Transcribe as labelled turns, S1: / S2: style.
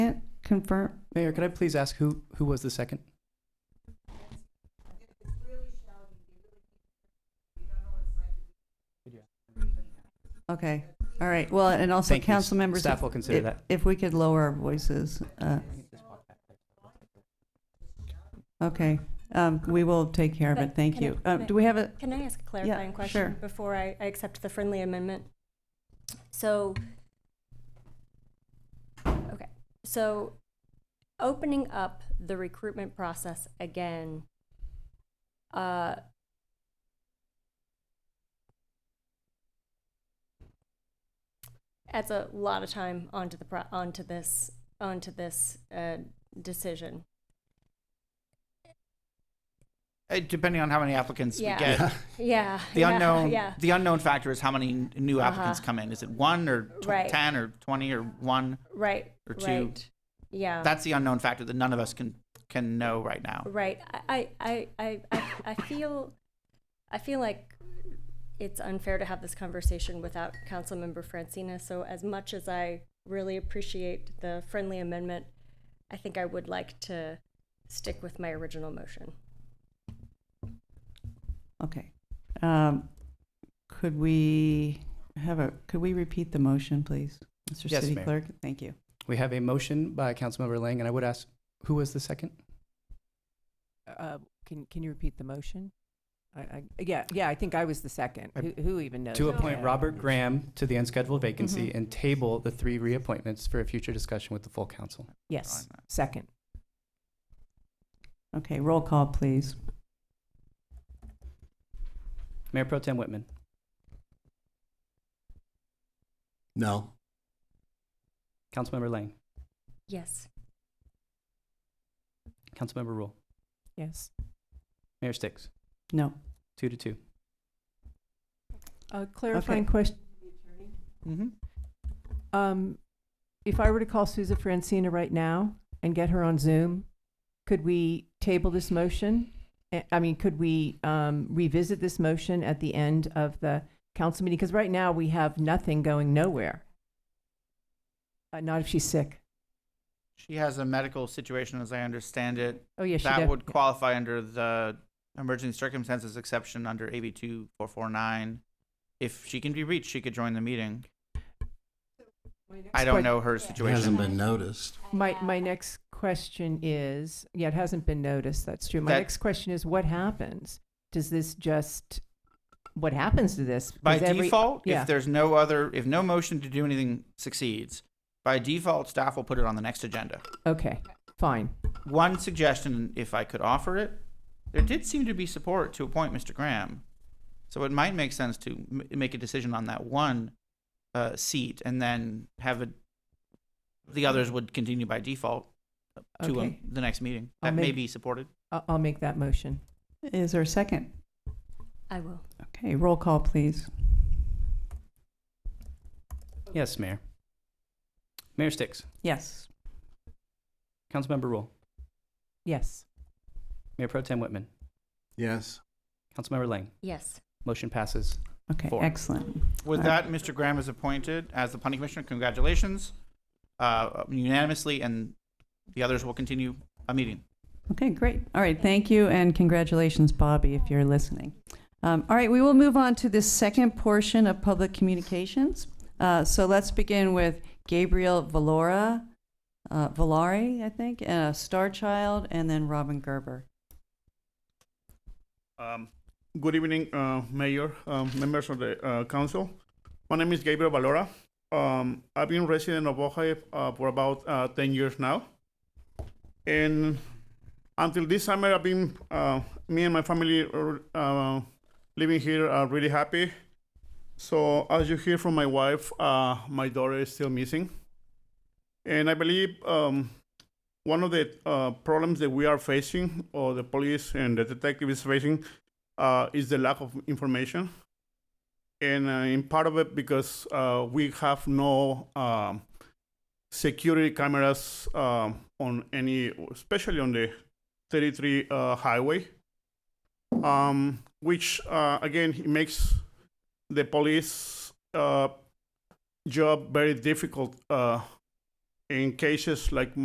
S1: confirm,
S2: Mayor, could I please ask who, who was the second?
S1: okay, all right, well, and also
S2: Thank you.
S1: council members,
S2: Staff will consider
S1: if,
S2: that.
S1: if we could lower our voices, uh, okay, um, we will take care of it,
S3: But
S1: thank
S3: can I-
S1: you. Uh,
S3: can I-
S1: do we have a,
S3: Can I ask a clarifying
S1: sure.
S3: question before I, I accept the friendly amendment? So, okay, so opening up the recruitment process again, uh, adds a lot of time onto the, pro- onto this, onto this, uh, decision.
S4: Uh, Depending on how many applicants we
S3: Yeah.
S4: get.
S3: Yeah.
S4: The
S3: yeah,
S4: unknown,
S3: Yeah.
S4: the unknown factor is how many n- new applicants
S3: Uh-huh.
S4: come in. Is it one or tw-
S3: Right.
S4: 10 or 20 or one?
S3: Right.
S4: or two.
S3: Right. Yeah.
S4: That's the unknown factor that none of us can can know right now.
S3: right. I, I, I, I, I feel, I feel like it's unfair to have this conversation without Councilmember Francina. So as much as I really appreciate the friendly amendment, I think I would like to stick with my original motion.
S1: okay. Um, could we have a, could we repeat the motion, please? Mr.
S2: Yes,
S1: City
S2: Mayor.
S1: Clerk, thank you.
S2: We have a motion by Councilmember Lang, and I would ask, who was the second?
S5: Uh, Can, can you repeat the motion? I, I, yeah, yeah, I think I was the second.
S2: I-
S5: Who, who even knows?
S2: To
S5: what
S2: appoint
S5: that
S2: Robert
S5: is?
S2: Graham to the unscheduled vacancy
S1: Mhm.
S2: and table the three reappointments for a future discussion with the full council. Oh,
S5: Yes,
S4: Fine.
S5: second.
S1: Okay, roll call, please.
S2: Mayor Pro Tem Whitman,
S6: No.
S2: Councilmember Lang,
S3: Yes.
S2: Councilmember Rule,
S5: Yes.
S2: Mayor Sticks,
S1: No,
S2: two to two.
S5: A clarifying question.
S2: Mm-hmm.
S5: Um, if I were to call Susa Francina right now and get her on Zoom, could we table this motion? Eh, I mean, could we, um, revisit this motion at the end of the council meeting? Because right now we have nothing going nowhere. Uh, not if she's sick.
S4: She has a medical situation, as I understand it.
S5: Oh, yeah, she
S4: that
S5: def-
S4: would qualify under the emergency circumstances exception under AB 2449. If she can be reached, she could join the meeting. I don't
S5: question-
S4: know her
S6: It hasn't
S4: situation.
S6: been noticed.
S5: My, my next question is, yeah, it hasn't been noticed, that's true. My
S4: That-
S5: next question is, what happens? Does this just, what happens to this?
S4: By
S5: Does every-
S4: default,
S5: yeah.
S4: if there's no other, if no motion to do anything succeeds, by default, staff will put it on the next agenda.
S5: Okay, fine.
S4: One suggestion, if I could offer it, there did seem to be support to appoint Mr. Graham. So it might make sense to m- make a decision on that one uh, seat and then have it, the others would continue by default to um,
S5: Okay.
S4: the next meeting.
S5: I'll
S4: That may
S5: make-
S4: be supported.
S5: I'll, I'll make that motion.
S1: is there a second?
S3: I will.
S1: Okay, roll call, please.
S2: Yes, Mayor. Mayor Sticks,
S1: Yes.
S2: Councilmember Rule,
S5: Yes.
S2: Mayor Pro Tem Whitman,
S6: Yes.
S2: Councilmember Lang,
S3: Yes.
S2: motion passes.
S1: Okay,
S2: Four.
S1: excellent.
S4: With
S1: Uh,
S4: that, Mr. Graham is appointed as the planning commissioner. Congratulations uh, unanimously, and the others will continue a meeting.
S1: Okay, great. All right, thank you, and congratulations, Bobby, if you're listening. Um, All right, we will move on to the second portion of public communications. Uh, So let's begin with Gabriel Valora, uh, Valari, I think, uh, Star Child, and then Robin Gerber.
S7: Um, Good evening, uh, Mayor, um, members of the uh, council. My name is Gabriel Valora. Um, I've been resident of Ojai uh, for about uh, 10 years now. And until this summer, I've been, uh, me and my family are, uh, living here are really happy. So, as you hear from my wife, uh, my daughter is still missing. And I believe um, one of the uh, problems that we are facing, or the police and the detective is facing, uh, is the lack of information. And uh, in part of it, because uh, we have no um, security cameras um, on any, especially on the 33 uh, highway, um, which uh, again it makes the police uh, job very difficult uh, in cases like